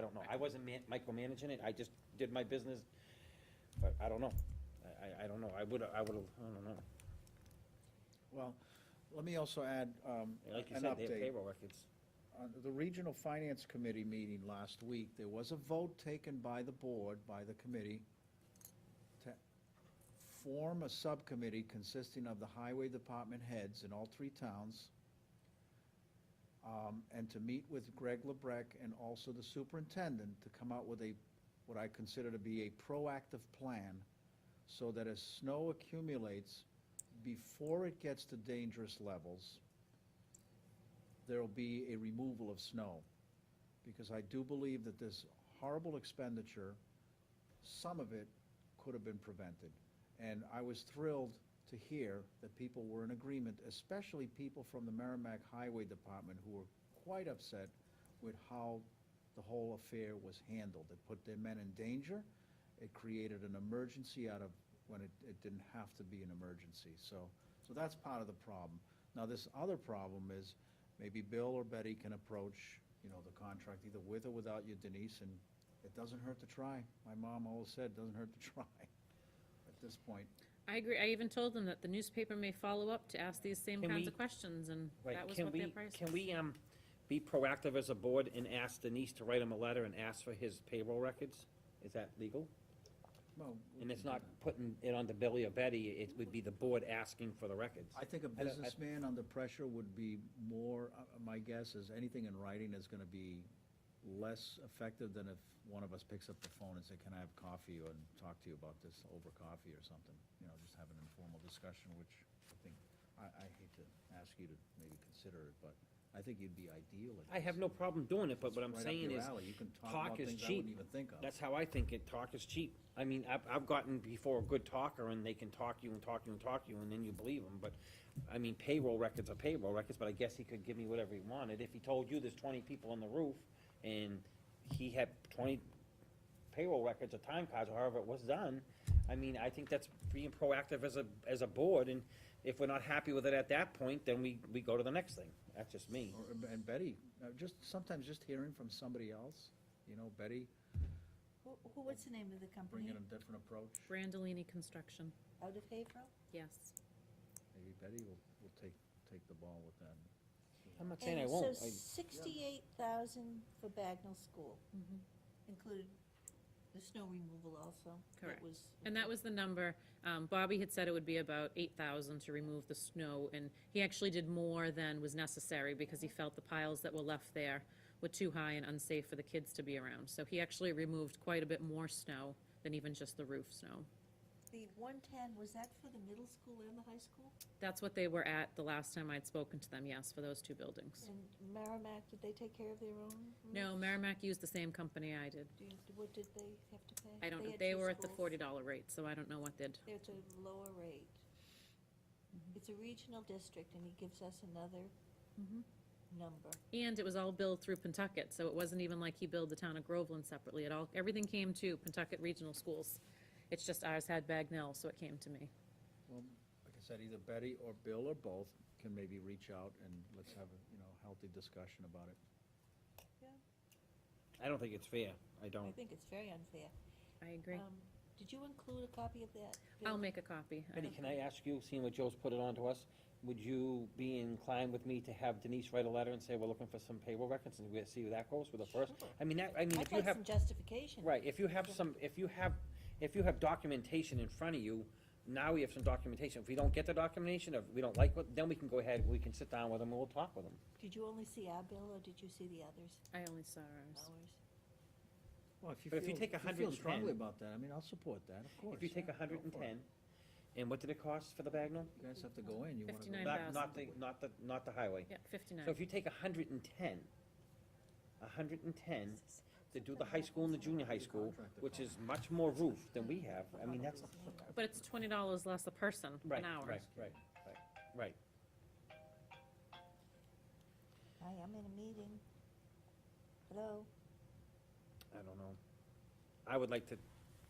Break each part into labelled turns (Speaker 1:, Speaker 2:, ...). Speaker 1: don't know. I wasn't man, micromanaging it, I just did my business, but I don't know. I, I, I don't know, I would, I would, I don't know.
Speaker 2: Well, let me also add, um,
Speaker 1: Like you
Speaker 2: an
Speaker 1: said, they have
Speaker 2: update.
Speaker 1: payroll records.
Speaker 2: On the Regional Finance Committee meeting last week, there was a vote taken by the board, by the committee, to form a subcommittee consisting of the highway department heads in all three towns, um, and to meet with Greg LeBrec and also the superintendent to come out with a, what I consider to be a proactive plan, so that as snow accumulates, before it gets to dangerous levels, there'll be a removal of snow. Because I do believe that this horrible expenditure, some of it could have been prevented. And I was thrilled to hear that people were in agreement, especially people from the Merrimack Highway Department who were quite upset with how the whole affair was handled. It put their men in danger. It created an emergency out of, when it, it didn't have to be an emergency. So, so that's part of the problem. Now, this other problem is, maybe Bill or Betty can approach, you know, the contract either with or without you, Denise, and it doesn't hurt to try. My mom always said, doesn't hurt to try at this point.
Speaker 3: I agree, I even told them that the newspaper may follow up to ask these same
Speaker 1: Can
Speaker 3: kinds
Speaker 1: we-
Speaker 3: of questions, and
Speaker 1: Right,
Speaker 3: that was
Speaker 1: can
Speaker 3: what their
Speaker 1: we-
Speaker 3: price
Speaker 1: Can
Speaker 3: was.
Speaker 1: we, um, be proactive as a board and ask Denise to write him a letter and ask for his payroll records? Is that legal?
Speaker 2: Well, we
Speaker 1: And it's
Speaker 2: can do
Speaker 1: not
Speaker 2: that.
Speaker 1: putting it on the Billy or Betty, it would be the board asking for the records.
Speaker 2: I think a
Speaker 1: I-
Speaker 2: businessman under pressure would be more, uh, my guess is anything in writing is gonna be less effective than if one of us picks up the phone and say, can I have coffee and talk to you about this over coffee or something? You know, just have an informal discussion, which I think, I, I hate to ask you to maybe consider it, but I think you'd be ideal at
Speaker 1: I have
Speaker 2: this.
Speaker 1: no problem doing it, but what I'm
Speaker 2: It's right up
Speaker 1: saying
Speaker 2: your
Speaker 1: is,
Speaker 2: alley. You can
Speaker 1: talk
Speaker 2: talk about
Speaker 1: is
Speaker 2: things I
Speaker 1: cheap.
Speaker 2: wouldn't even think of.
Speaker 1: that's how I think it, talk is cheap. I mean, I've, I've gotten before a good talker, and they can talk you and talk you and talk you, and then you believe them, but, I mean, payroll records are payroll records, but I guess he could give me whatever he wanted. If he told you there's twenty people on the roof, and he had twenty payroll records or time cards, or however it was done, I mean, I think that's being proactive as a, as a board, and if we're not happy with it at that point, then we, we go to the next thing. That's just me.
Speaker 2: Or- And Betty, uh, just, sometimes just hearing from somebody else, you know, Betty,
Speaker 4: Who, who- what's the name of the company?
Speaker 2: bringing a different approach.
Speaker 3: Brandolini Construction,
Speaker 4: Out of Haverhill?
Speaker 3: yes.
Speaker 2: Maybe Betty will, will take, take the ball with that.
Speaker 1: I'm not saying I
Speaker 4: And
Speaker 1: won't.
Speaker 4: so
Speaker 1: I-
Speaker 4: sixty-eight thousand for Bagnell School,
Speaker 3: Mhm.
Speaker 4: included the snow removal also? that
Speaker 3: Correct.
Speaker 4: was-
Speaker 3: And that was the number, um, Bobby had said it would be about eight thousand to remove the snow, and he actually did more than was necessary, because he felt the piles that were left there were too high and unsafe for the kids to be around, so he actually removed quite a bit more snow than even just the roof snow.
Speaker 4: The one-ten, was that for the middle school and the high school?
Speaker 3: That's what they were at the last time I'd spoken to them, yes, for those two buildings.
Speaker 4: And Merrimack, did they take care of their own?
Speaker 3: No,
Speaker 4: roofs?
Speaker 3: Merrimack used the same company I did.
Speaker 4: Do you- What did they have to pay?
Speaker 3: I don't, know.
Speaker 4: had
Speaker 3: they
Speaker 4: two
Speaker 3: were at the
Speaker 4: schools.
Speaker 3: forty dollar rate, so I don't know what they'd,
Speaker 4: They're at a lower rate.
Speaker 3: Mm-hmm.
Speaker 4: It's a regional district, and he gives us another
Speaker 3: Mm-hmm.
Speaker 4: number.
Speaker 3: and it was all billed through Pentucket, so it wasn't even like he billed the town of Groveland separately at all. Everything came to Pentucket Regional Schools. It's just ours had Bagnell, so it came to me.
Speaker 2: Well, like I said, either Betty or Bill or both can maybe reach out and let's have a, you know, healthy discussion about it.
Speaker 1: I don't think it's fair. I
Speaker 4: I
Speaker 1: don't.
Speaker 4: think it's very unfair.
Speaker 3: I agree.
Speaker 4: Um, Did you include a copy of that?
Speaker 3: I'll
Speaker 4: Bill?
Speaker 3: make a copy. I
Speaker 1: Betty,
Speaker 3: don't-
Speaker 1: can I ask you, seeing what Joe's put it on to us, would you be inclined with me to have Denise write a letter and say, we're looking for some payroll records, and we'll see where that goes with the first?
Speaker 4: Sure.
Speaker 1: I mean, that, I mean,
Speaker 4: I'd
Speaker 1: if you
Speaker 4: like
Speaker 1: have,
Speaker 4: some justification.
Speaker 1: right, if you have some, if you have, if you have documentation in front of you, now we have some documentation. If we don't get the documentation, if we don't like what, then we can go ahead, we can sit down with them, and we'll talk with them.
Speaker 4: Did you only see our bill, or did you see the others?
Speaker 3: I only saw ours.
Speaker 4: Ours.
Speaker 1: Mm-hmm.
Speaker 2: Well, if
Speaker 1: But if you
Speaker 2: feel-
Speaker 1: take a
Speaker 2: If you feel
Speaker 1: 110
Speaker 2: strongly about that, I mean, I'll support that, of course.
Speaker 1: If you take
Speaker 2: yeah,
Speaker 1: a
Speaker 2: go
Speaker 1: hundred and
Speaker 2: for it.
Speaker 1: ten, and what did it cost for the Bagnell?
Speaker 2: You guys have to go in, you wanna go.
Speaker 3: 59.
Speaker 1: Not, not the, not the, not the highway.
Speaker 3: Yeah,
Speaker 1: So
Speaker 3: fifty-nine.
Speaker 1: if you take hundred and ten, hundred and ten, to do the high school and the junior high school, which is much more roof than we have, I mean, that's,
Speaker 3: But it's twenty dollars less a person,
Speaker 1: right,
Speaker 3: an
Speaker 1: right,
Speaker 3: hour.
Speaker 1: right, right, right.
Speaker 4: I am in a meeting. Hello?
Speaker 1: I don't know. I would like to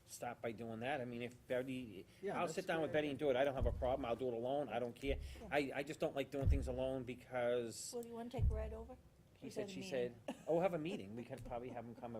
Speaker 1: stop by doing that, I mean, if Betty,
Speaker 2: Yeah,
Speaker 1: I'll
Speaker 2: that's
Speaker 1: sit down with
Speaker 2: fair.
Speaker 1: Betty and do it, I don't have a problem, I'll do it alone, I don't care. I, I just don't like doing things alone because oh,
Speaker 4: Well, do you wanna take a ride over?
Speaker 1: he
Speaker 4: She's
Speaker 1: said,
Speaker 4: at a
Speaker 1: she
Speaker 4: meeting.
Speaker 1: said, oh, we'll have a meeting, we could probably have him come